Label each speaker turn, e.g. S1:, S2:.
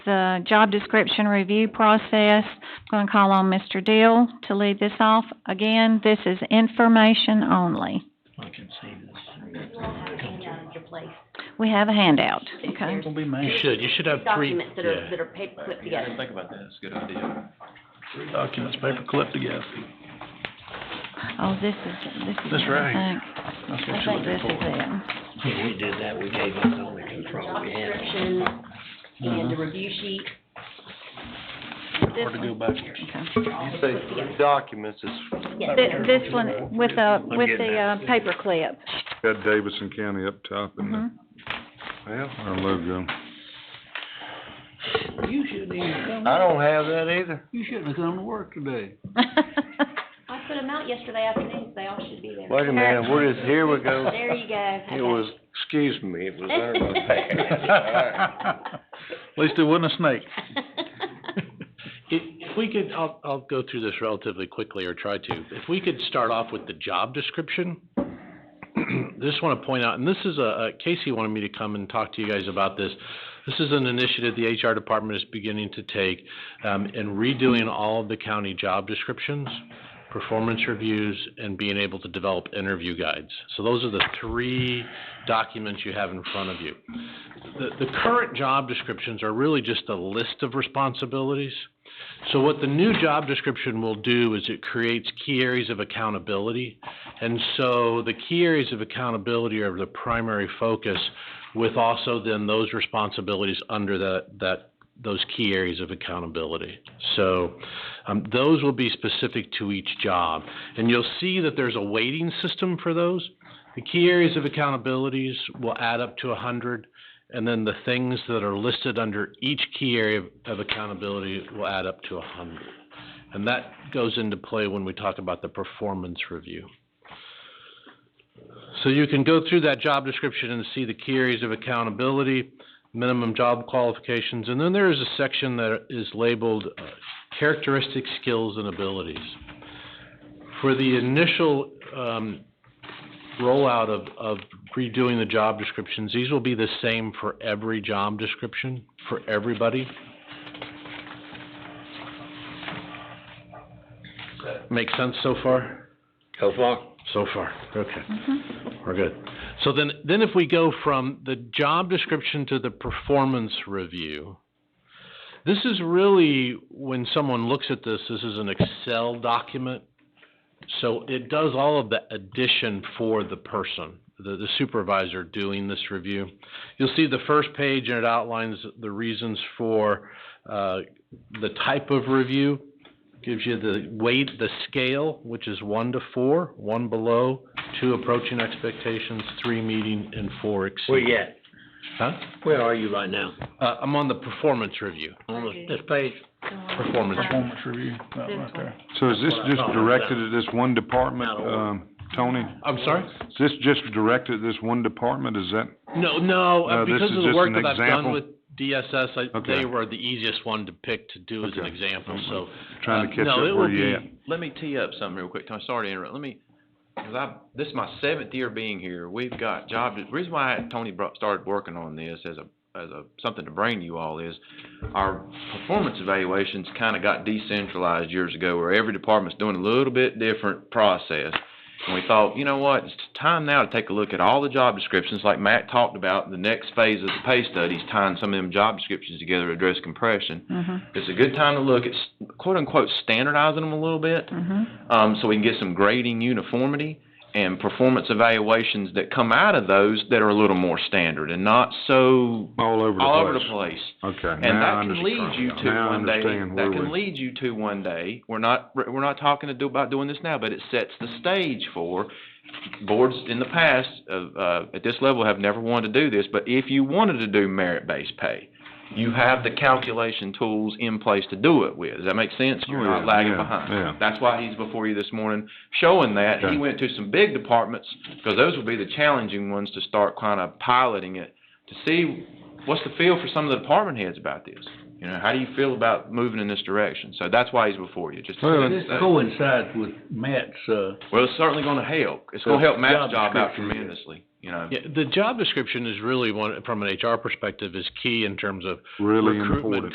S1: the job description review process. I'm going to call on Mr. Deal to lead this off. Again, this is information only.
S2: I can see this.
S3: You all have a handout at your place.
S1: We have a handout, okay?
S2: Don't be mad.
S4: You should, you should have three,
S3: Documents that are,
S4: yeah.
S3: that are paper clipped together.
S5: Think about that, it's a good idea.
S2: Three documents, paper clipped together.
S1: Oh, this is, this is
S2: That's right.
S1: I think-
S2: That's
S1: I think
S2: what you're
S1: this is
S2: looking for.
S1: it.
S6: Yeah, we did that, we gave up all the control
S3: Job
S6: we had.
S3: description and the review sheet.
S2: Hard to go back here.
S5: You say three documents, it's
S3: Yes,
S1: Thi-
S3: sir.
S1: This one with a, with the, uh, paper clip.
S7: Got Davidson County up top in
S1: Mm-hmm.
S7: the,
S3: Mm-hmm.
S7: our logo.
S2: You shouldn't even come,
S5: I don't have that either.
S2: you shouldn't have come to work today.
S3: I put them out yesterday afternoon, they all should be there.
S5: Wait a minute, what is, here we go.
S3: There you go.
S5: It was, excuse me, it was there.
S2: At least it wasn't a snake.
S4: If, if we could, I'll, I'll go through this relatively quickly or try to. If we could start off with the job description. Just wanna point out, and this is a, a- Casey wanted me to come and talk to you guys about this. This is an initiative the HR department is beginning to take, um, in redoing all of the county job descriptions, performance reviews, and being able to develop interview guides. So those are the three documents you have in front of you. The, the current job descriptions are really just a list of responsibilities. So what the new job description will do is it creates key areas of accountability. And so the key areas of accountability are the primary focus with also then those responsibilities under that, that, those key areas of accountability. So, um, those will be specific to each job. And you'll see that there's a weighting system for those. The key areas of accountabilities will add up to a hundred. And then the things that are listed under each key area of- of accountability will add up to a hundred. And that goes into play when we talk about the performance review. So you can go through that job description and see the key areas of accountability, minimum job qualifications, and then there is a section that is labeled uh, characteristic skills and abilities. For the initial, um, rollout of, of redoing the job descriptions, these will be the same for every job description, for everybody. Make sense so far?
S6: Go far.
S4: So far, okay. We're good. So then, then if we go from the job description to the performance review, this is really, when someone looks at this, this is an Excel document. So it does all of the addition for the person, the, the supervisor doing this review. You'll see the first page and it outlines the reasons for, uh, the type of review gives you the weight, the scale, which is one to four, one below, two approaching expectations, three meeting, and four
S6: Where
S4: exceeding.
S6: you at?
S4: Huh?
S6: Where are you right now?
S4: Uh, I'm on the performance review,
S6: On this- this page?
S4: performance.
S2: Performance review, that right there.
S7: So is this
S6: That's what I
S7: just
S6: thought it was
S7: directed at this one department,
S6: Out of order.
S7: um, Tony?
S4: I'm sorry?
S7: Is this just directed at this one department, is that?
S4: No, no, uh,
S7: No, this
S4: because
S7: is
S4: of the
S7: just
S4: work
S7: an
S4: that I've done
S7: example.
S4: with DSS, I,
S7: Okay.
S4: they were the easiest one to pick to do as an
S7: Okay.
S4: example, so.
S7: Trying to
S4: uh,
S7: catch
S4: no,
S7: up
S4: it will
S7: where you
S4: be-
S7: at.
S5: Let me tee up something real quick, Tony, sorry to interrupt, let me, 'cause I, this is my seventh year being here, we've got job, the reason why Tony brought, started working on this as a, as a, something to bring you all is, our performance evaluations kinda got decentralized years ago, where every department's doing a little bit different process. And we thought, you know what, it's time now to take a look at all the job descriptions, like Matt talked about, the next phase of the pay studies, tying some of them job descriptions together to address compression. It's a good time to look at s- quote unquote standardizing them a little bit, um, so we can get some grading uniformity and performance evaluations that come out of those that are a little more standard and not so
S7: All over the place?
S5: all over the place.
S7: Okay,
S5: And
S7: now I
S5: that can lead you
S7: understand.
S5: to
S7: Now I
S5: one day,
S7: understand where
S5: that
S7: we-
S5: can lead you to one day, we're not, we're not talking to do, about doing this now, but it sets the stage for boards in the past, of, uh, at this level have never wanted to do this, but if you wanted to do merit-based pay, you have the calculation tools in place to do it with. Does that make sense? You're
S7: Oh,
S5: not
S7: yeah,
S5: lagging
S7: yeah,
S5: behind.
S7: yeah.
S5: That's why he's before you this morning, showing that. He
S7: Okay.
S5: went to some big departments, because those will be the challenging ones to start kind of piloting it, to see what's the feel for some of the department heads about this? You know, how do you feel about moving in this direction? So that's why he's before you, just. to
S7: Well,
S5: set the
S2: This
S5: stage.
S2: coincides with Matt's, uh,
S5: Well, it's certainly gonna help. It's gonna help Matt's
S2: Job
S5: job out
S2: description, yeah.
S5: tremendously, you know?
S4: Yeah, the job description is really one, from an HR perspective, is key in terms of
S7: Really
S4: recruitment,
S7: important.